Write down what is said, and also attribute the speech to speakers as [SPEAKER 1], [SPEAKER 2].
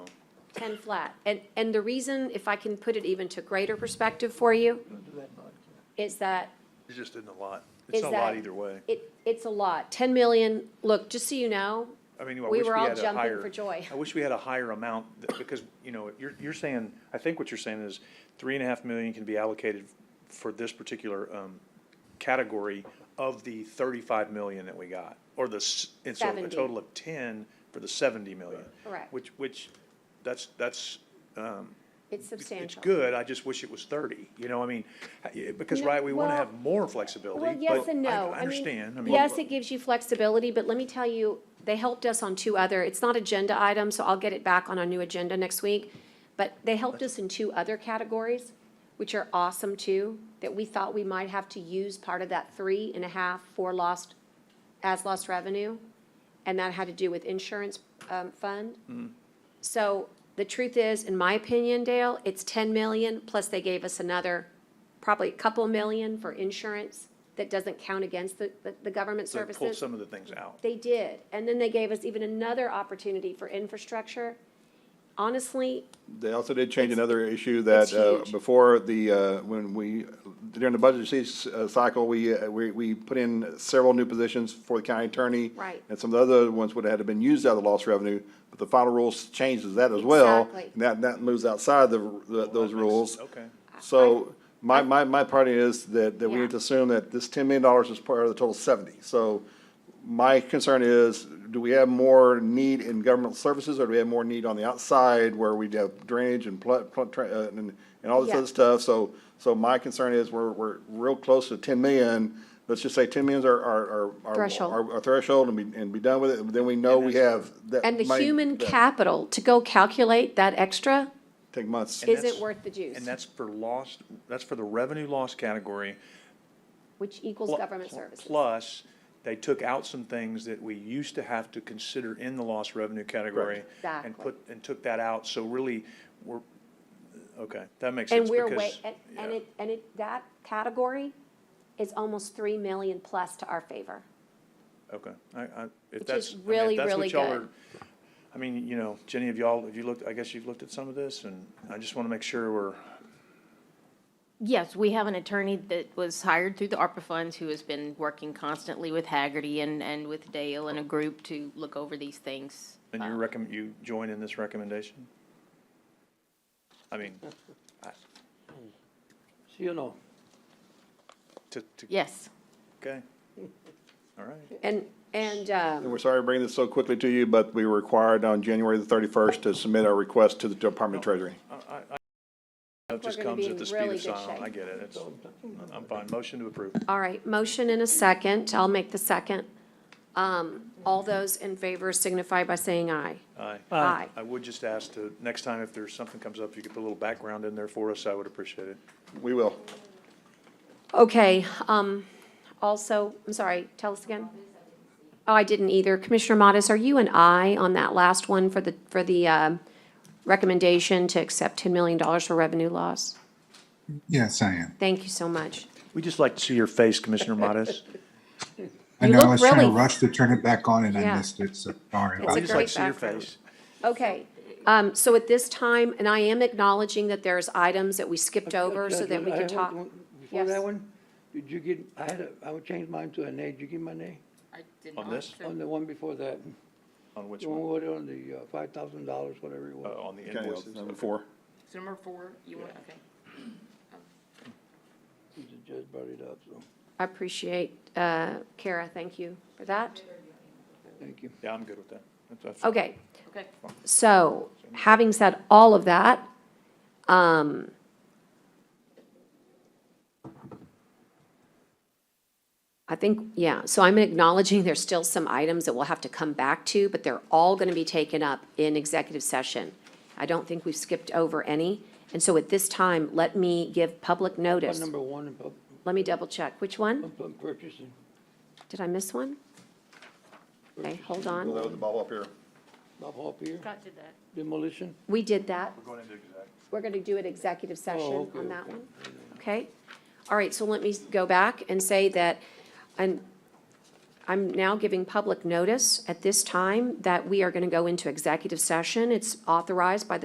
[SPEAKER 1] ten flat. And, and the reason, if I can put it even to greater perspective for you, is that
[SPEAKER 2] It's just in the lot.
[SPEAKER 1] Is
[SPEAKER 2] It's not a lot
[SPEAKER 1] that-
[SPEAKER 2] either way.
[SPEAKER 1] it, it's a lot. Ten million, look, just so you know,
[SPEAKER 2] I mean, I
[SPEAKER 1] we
[SPEAKER 2] wish
[SPEAKER 1] were
[SPEAKER 2] we
[SPEAKER 1] all
[SPEAKER 2] had a
[SPEAKER 1] jumping
[SPEAKER 2] higher.
[SPEAKER 1] for joy.
[SPEAKER 2] I wish we had a higher amount, th- because, you know, you're, you're saying, I think what you're saying is three and a half million can be allocated for this particular, um, category of the thirty-five million that we got, or the, s- and so a
[SPEAKER 1] 70.
[SPEAKER 2] total of ten for the seventy million.
[SPEAKER 1] Correct.
[SPEAKER 2] Which, which, that's, that's, um,
[SPEAKER 1] it's
[SPEAKER 2] it's it's
[SPEAKER 1] substantial.
[SPEAKER 2] good, I just wish it was thirty, you know, I mean, h- because,
[SPEAKER 1] No,
[SPEAKER 2] right, we wanna
[SPEAKER 1] well-
[SPEAKER 2] have more flexibility.
[SPEAKER 1] Well, yes
[SPEAKER 2] but
[SPEAKER 1] and no.
[SPEAKER 2] I-
[SPEAKER 1] mean,
[SPEAKER 2] I understand, I mean.
[SPEAKER 1] Yes, it gives you flexibility, but let me tell you, they helped us on two other, it's not agenda items, so I'll get it back on our new agenda next week. But they helped us in two other categories, which are awesome too, that we thought we might have to use part of that three and a half for lost, as lost revenue. And that had to do with insurance, um, fund.
[SPEAKER 2] Mm-hmm.
[SPEAKER 1] So the truth is, in my opinion, Dale, it's ten million, plus they gave us another, probably a couple million for insurance that doesn't count against the, the, the government
[SPEAKER 2] so
[SPEAKER 1] services.
[SPEAKER 2] Pull some of the things out.
[SPEAKER 1] They did, and then they gave us even another opportunity for infrastructure. Honestly,
[SPEAKER 3] They also did change
[SPEAKER 1] It's-
[SPEAKER 3] another issue that,
[SPEAKER 1] it's
[SPEAKER 3] uh,
[SPEAKER 1] huge.
[SPEAKER 3] before the, uh, when we, during the budget se- uh, cycle, we, uh, we, we put in several new positions for the county attorney.
[SPEAKER 1] Right.
[SPEAKER 3] And some of the other ones would have had to been used out of the lost revenue, but the final rules changes that as well.
[SPEAKER 1] Exactly.
[SPEAKER 3] And that, that moves outside the, the- those rules.
[SPEAKER 2] Okay.
[SPEAKER 3] So my, my, my party is that, that we
[SPEAKER 1] Yeah.
[SPEAKER 3] need to assume that this ten million dollars is part of the total seventy. So my concern is, do we have more need in government services or do we have more need on the outside where we have drainage and pl- pl- tra- uh, and, and all this
[SPEAKER 1] Yeah.
[SPEAKER 3] other stuff? So, so my concern is we're, we're real close to ten million. Let's just say ten millions are, are, are- are.
[SPEAKER 1] Threshold.
[SPEAKER 3] Our threshold and be, and be done with it. Then we know we have that.
[SPEAKER 1] and the
[SPEAKER 3] money-
[SPEAKER 1] human
[SPEAKER 3] that
[SPEAKER 1] capital, to go calculate that extra,
[SPEAKER 3] Take months.
[SPEAKER 2] And
[SPEAKER 1] Isn't
[SPEAKER 2] that's-
[SPEAKER 1] worth the juice.
[SPEAKER 2] And that's for lost, that's for the revenue loss category.
[SPEAKER 1] which equals
[SPEAKER 2] plu-
[SPEAKER 1] government
[SPEAKER 2] pl-
[SPEAKER 1] services.
[SPEAKER 2] Plus, they took out some things that we used to have to consider in the lost revenue category. And
[SPEAKER 1] Exactly.
[SPEAKER 2] put, and took that out, so really, we're, okay, that makes
[SPEAKER 1] And
[SPEAKER 2] sense.
[SPEAKER 1] we're way,
[SPEAKER 2] because-
[SPEAKER 1] and, and
[SPEAKER 2] yeah.
[SPEAKER 1] it, and it, that category is almost three million plus to our favor.
[SPEAKER 2] Okay, I, I,
[SPEAKER 1] Which
[SPEAKER 2] if that's,
[SPEAKER 1] is
[SPEAKER 2] I mean, if
[SPEAKER 1] really,
[SPEAKER 2] that's
[SPEAKER 1] really
[SPEAKER 2] what y'all
[SPEAKER 1] good.
[SPEAKER 2] are, I mean, you know, Jenny, have y'all, have you looked, I guess you've looked at some of this, and I just wanna make sure we're,
[SPEAKER 4] Yes, we have an attorney that was hired through the ARPA funds who has been working constantly with Haggerty and, and with Dale and a group to look over these things.
[SPEAKER 2] and you recommend, you join in this recommendation? I mean,
[SPEAKER 5] So you know,
[SPEAKER 2] to, to,
[SPEAKER 4] Yes.
[SPEAKER 2] okay, all right.
[SPEAKER 1] And, and, um.
[SPEAKER 3] And we're sorry to bring this so quickly to you, but we were required on January the thirty-first to submit our request to the Department of Treasury.
[SPEAKER 2] It just
[SPEAKER 1] gonna
[SPEAKER 2] comes
[SPEAKER 1] be
[SPEAKER 2] at
[SPEAKER 1] in
[SPEAKER 2] the speed
[SPEAKER 1] really good
[SPEAKER 2] of
[SPEAKER 1] shape.
[SPEAKER 2] sound, I get it, it's, I'm fine, motion to approve.
[SPEAKER 1] All right, motion and a second. I'll make the second. Um, all those in favor signify by saying aye.
[SPEAKER 2] Aye.
[SPEAKER 1] Aye.
[SPEAKER 2] I would just ask to, next time if there's something comes up, if you could put a little background in there for us, I would appreciate it.
[SPEAKER 3] We will.
[SPEAKER 1] Okay, um, also, I'm sorry, tell us again. Oh, I didn't either. Commissioner Modis, are you an aye on that last one for the, for the, um, recommendation to accept ten million dollars for revenue loss?
[SPEAKER 6] Yes, I am.
[SPEAKER 1] Thank you so much.
[SPEAKER 2] We'd just like to see your face, Commissioner Modis.
[SPEAKER 6] I
[SPEAKER 1] You
[SPEAKER 6] know I
[SPEAKER 1] look
[SPEAKER 6] was trying
[SPEAKER 1] really-
[SPEAKER 6] to rush to turn it back on and
[SPEAKER 1] Yeah.
[SPEAKER 6] I missed it, so sorry.
[SPEAKER 1] It's
[SPEAKER 6] about
[SPEAKER 1] a
[SPEAKER 2] We'd
[SPEAKER 6] that.
[SPEAKER 2] just like
[SPEAKER 1] great
[SPEAKER 2] to see your
[SPEAKER 1] background.
[SPEAKER 2] face.
[SPEAKER 1] Okay, um, so at this time, and I am acknowledging that there's items that we skipped over so
[SPEAKER 5] Judge,
[SPEAKER 1] that we
[SPEAKER 5] I
[SPEAKER 1] could
[SPEAKER 5] have
[SPEAKER 1] talk.
[SPEAKER 5] one- Before
[SPEAKER 1] Yes.
[SPEAKER 5] that one, did you get, I had a, I would change mine to a nay, did you give my nay?
[SPEAKER 4] I did
[SPEAKER 2] On not, this? sir.
[SPEAKER 5] On the one before that,
[SPEAKER 2] On which
[SPEAKER 5] the one
[SPEAKER 2] one?
[SPEAKER 5] with on the uh, five thousand dollars, whatever it
[SPEAKER 2] Uh,
[SPEAKER 5] was.
[SPEAKER 2] on the
[SPEAKER 3] Okay,
[SPEAKER 2] invoices?
[SPEAKER 3] Number four.
[SPEAKER 4] Number four, you want, okay.
[SPEAKER 5] The judge brought it up, so,
[SPEAKER 1] I appreciate, uh, Kara, thank you for that.
[SPEAKER 5] thank you.
[SPEAKER 2] Yeah, I'm good with that. That's- that's fine.
[SPEAKER 1] Okay,
[SPEAKER 4] Okay.
[SPEAKER 1] so, having said all of that, um, I think, yeah, so I'm acknowledging there's still some items that we'll have to come back to, but they're all gonna be taken up in executive session. I don't think we've skipped over any, and so at this time, let me give public
[SPEAKER 5] What
[SPEAKER 1] notice.
[SPEAKER 5] number one, in pub-
[SPEAKER 1] Let me double check, which one?
[SPEAKER 5] pub- pub purchasing,
[SPEAKER 1] Did I miss one? Okay, hold
[SPEAKER 3] We'll
[SPEAKER 1] on.
[SPEAKER 3] load the ball up here.
[SPEAKER 5] Bob Hall Pier,
[SPEAKER 4] Scott did that.
[SPEAKER 5] demolition?
[SPEAKER 1] We did that.
[SPEAKER 2] We're going into exec.
[SPEAKER 1] We're going to do an executive session
[SPEAKER 5] Oh, okay,
[SPEAKER 1] on that
[SPEAKER 5] okay.
[SPEAKER 1] one. Okay? All right, so let me go back and say that, and I'm now giving public notice at this time that we are going to go into executive session. It's authorized by the